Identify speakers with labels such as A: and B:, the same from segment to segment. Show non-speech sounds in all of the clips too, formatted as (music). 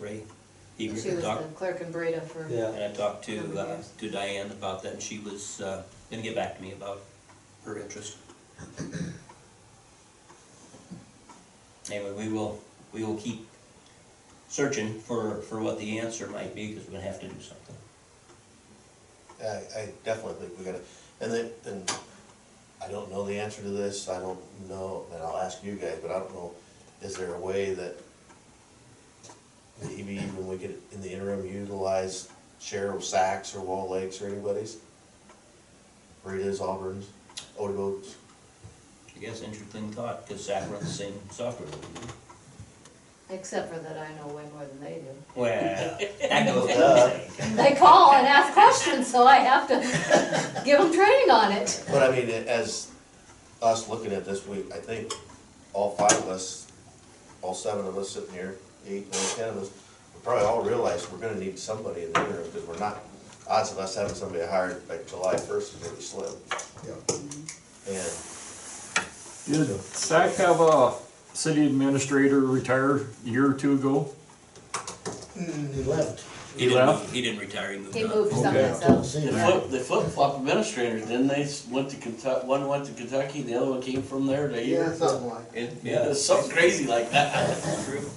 A: Ray
B: She
A: Eager
B: was
A: to talk.
B: the clerk in Breda for,
C: Yeah.
A: And I talked to,
B: Number
A: uh,
B: years.
A: to Diane about that, and she was, uh, gonna get back to me about her
B: (coughs)
A: interest. Anyway, we will, we will keep searching for, for what the answer might be, because we're gonna have to do something.
D: I, I definitely think we gotta, and then, and I don't know the answer to this, I don't know, and I'll ask you guys, but I don't know, is there a way that maybe even we could, in the interim, utilize Cheryl Sachs or Wall Lakes or anybody's? Rita's, Auburn's, Odego's,
A: I guess interesting thought, because Zach runs the same software.
B: except for that I know way more than they do.
A: Well, (laughs) that goes without
D: Duh.
A: saying.
B: They call and ask questions, so I have to (laughs) give them training on it.
D: But I mean, as us looking at this, we, I think all five of us, all seven of us sitting here, eight, nine, ten of us, we probably all realize we're gonna need somebody in the interim, because we're not, odds of us having somebody hired by July first is really slim. And
E: Did SAC have a city administrator retire a year or two ago?
C: Mm, He left.
A: He didn't, move- he didn't retire, he moved
B: He
A: on.
B: moved someplace
C: Don't
B: else.
C: see
F: The
C: him.
F: flip, the flip-flop administrators, didn't they, S- went to Kentucky, one went to Kentucky, the other one came from there to
G: Yeah,
F: here?
G: something like,
F: It-
A: Yeah.
F: Yeah, something crazy like that. (laughs)
A: True.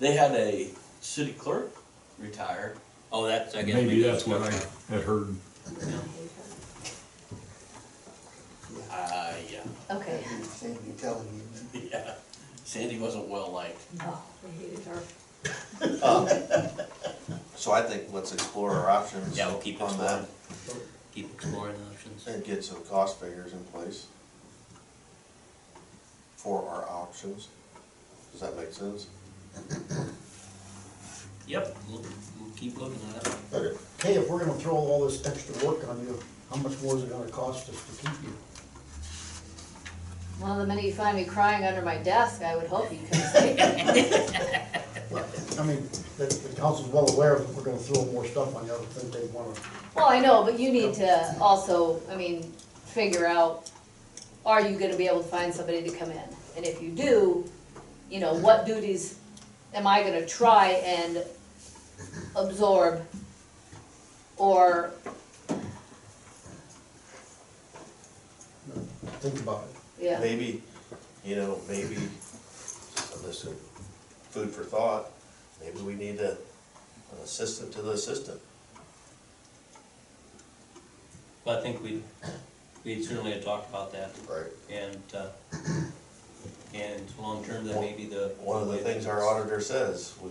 F: They had a city clerk retire.
A: Oh, that's, I guess.
E: Maybe that's what I had heard.
F: Uh, yeah,
B: Okay.
G: Sandy telling you.
F: yeah. Sandy wasn't well-liked.
B: Oh, they hated her.
D: so I think let's explore our options
A: Yeah, we'll keep
D: on that
A: exploring, keep exploring options.
D: and get some cost figures in place for our options. Does that make sense?
A: Yep, we'll, we'll keep looking at it.
C: But, hey, if we're gonna throw all this extra work on you, how much more is it gonna cost us to keep you?
B: Well, the minute you find me crying under my desk, I would hope you come see.
C: I mean, the, the council's well aware that we're gonna throw more stuff on you, I don't think they wanna,
B: Well, I know, but you need to also, I mean, figure out, are you gonna be able to find somebody to come in? And if you do, you know, what duties am I gonna try and absorb? Or,
C: think about it.
B: yeah,
D: maybe, you know, maybe, so this is food for thought, maybe we need a, an assistant to the assistant.
A: Well, I think we, we certainly had talked about that,
D: Right.
A: and, uh, and long-term, that may be the.
D: One of the things our auditor says, we,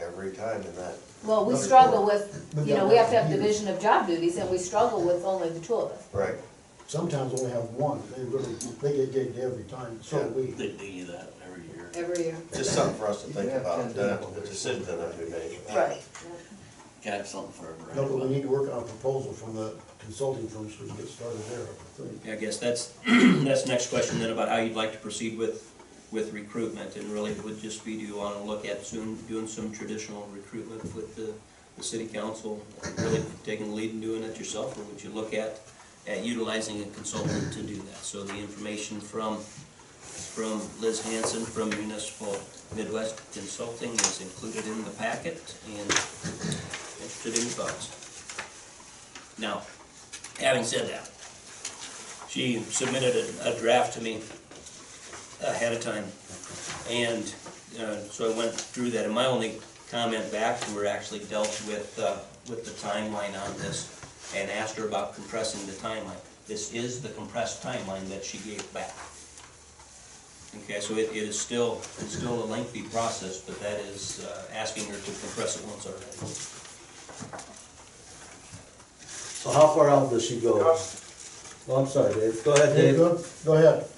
D: every time in that,
B: well, we struggle with, you know, we have to have division of job duties, and we struggle with only the two of us.
D: right,
C: Sometimes only have one, they really, they get gigged every time, so do we.
F: They do that every year.
B: Every year.
D: just something for us to think
G: Yeah,
D: about,
G: ten
D: uh,
G: people.
D: the decision that has to be made.
B: Right.
F: Gotta have something for everybody.
C: No, but we need to work on a proposal from the consulting firm, so we can get started there, I think.
A: I guess that's, (clears throat) that's the next question then about how you'd like to proceed with, with recruitment, and really it would just be, do you wanna look at soon, doing some traditional recruitment with the, the city council, really taking the lead and doing it yourself, or would you look at, at utilizing a consultant to do that? So the information from, from Liz Hanson from Municipal Midwest Consulting is included in the packet, and interested in your thoughts. Now, having said that, she submitted a, a draft to me ahead of time. And, uh, so I went through that, and my only comment back to her actually dealt with, uh, with the timeline on this and asked her about compressing the timeline. This is the compressed timeline that she gave back. Okay, so it, it is still, it's still a lengthy process, but that is, uh, asking her to compress it once already.
H: So how far out does she go? Well, Oh, I'm sorry, Dave, go ahead,
C: Hey,
H: Dave.
C: Go go ahead,